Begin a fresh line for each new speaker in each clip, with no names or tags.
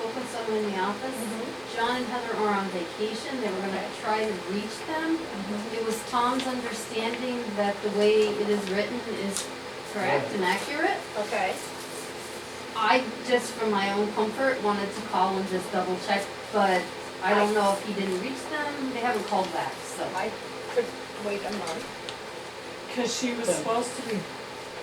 them in the office. John and Heather are on vacation, they were gonna try to reach them. It was Tom's understanding that the way it is written is correct and accurate.
Okay.
I just, for my own comfort, wanted to call and just double check, but I don't know if he didn't reach them, they haven't called back, so.
I could wait a month.
Cause she was
Good.
supposed to be,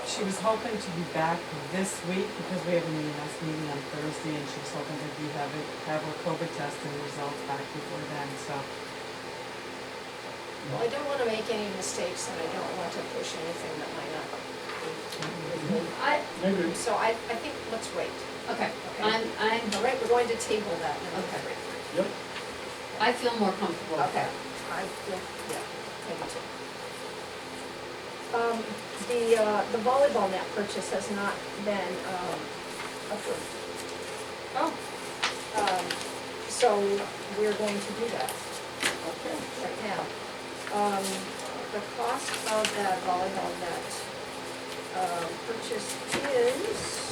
she was hoping to be back this week because we have a meeting, that's meeting on Thursday and she was hoping that we have it, have her COVID test and results back before then, so.
Well, I don't wanna make any mistakes and I don't want to push anything that might not be with me.
I,
Maybe.
So I, I think, let's wait.
okay,
Okay.
I'm, I'm,
All right, we're going to table that now.
Okay.
Yep.
I feel more comfortable with
Okay,
that.
I, yeah, yeah, maybe too. Um, the, uh, the volleyball net purchase has not been, um, approved.
Oh,
Um, so we're going to do that
Okay.
right now. Um, the cost of that volleyball net, um, purchase is,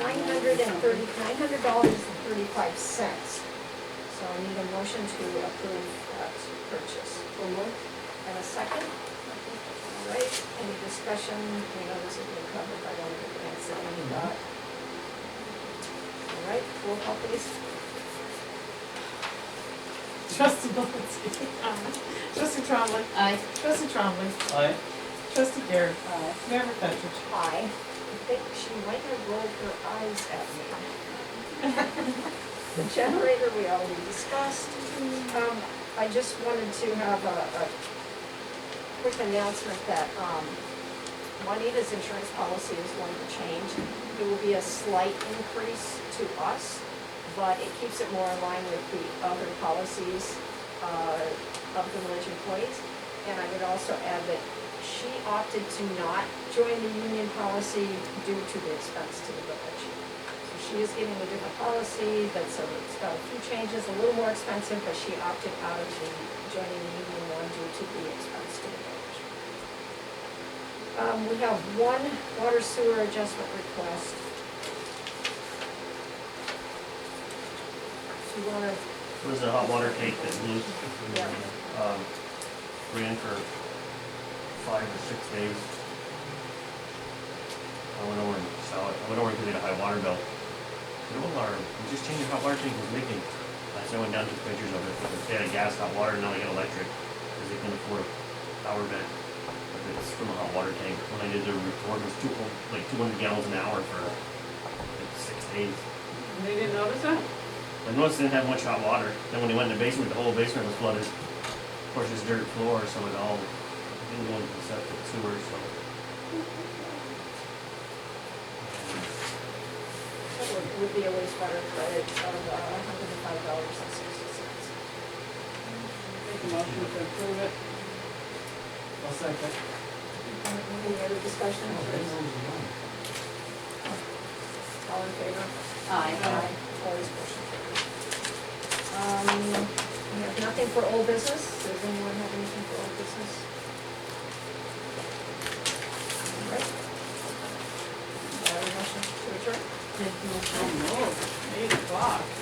nine hundred and thirty, nine hundred dollars and thirty-five cents. So I need a motion to approve that purchase. And a second? All right, any discussion? We know this has been covered by one of the grants that we got. All right, roll call please.
Trustee Malinsky. Trustee Trombley.
I,
Trustee Trombley.
Aye.
Trustee Garrett. Mayor McFetrich.
Aye. I think she might have rolled her eyes at me. The generator, we already discussed. Um, I just wanted to have a, a quick announcement that, um, Juanita's insurance policy is going to change. It will be a slight increase to us, but it keeps it more in line with the other policies, uh, of the village employees. And I would also add that she opted to not join the union policy due to the expense to the village. So she is getting a different policy that's, a- it's got a few changes, a little more expensive, but she opted out of the, joining the union one due to the expense to the village. Um, we have one water sewer adjustment request. Do you wanna,
It was a hot water tank that blew,
Yeah.
um, ran for five or six days. I went over and saw it, I went over and paid a high water bill. No alarm, we just changed your hot water tank, it was leaking. I said, I went down to pictures of it, they had a gas, hot water, now they got electric, because they can afford power back. But it's from a hot water tank, when I did the report, it was two, like two hundred gallons an hour for like six days.
They didn't notice that?
I noticed they didn't have much hot water. Then when they went in the basement, the whole basement was flooded. Of course, it's dirt floor, so it all didn't go into the septic sewer, so.
it would be a wastewater credit of a hundred and five dollars and sixty cents.
Make a motion to approve it.
I'll second.
Any other discussion? All in favor? Um,
I,
Opposed, motion carries. Um, we have nothing for old business. Does anyone have anything for old business? All right. Do I have a motion to adjourn?
did you-
Oh, eight o'clock.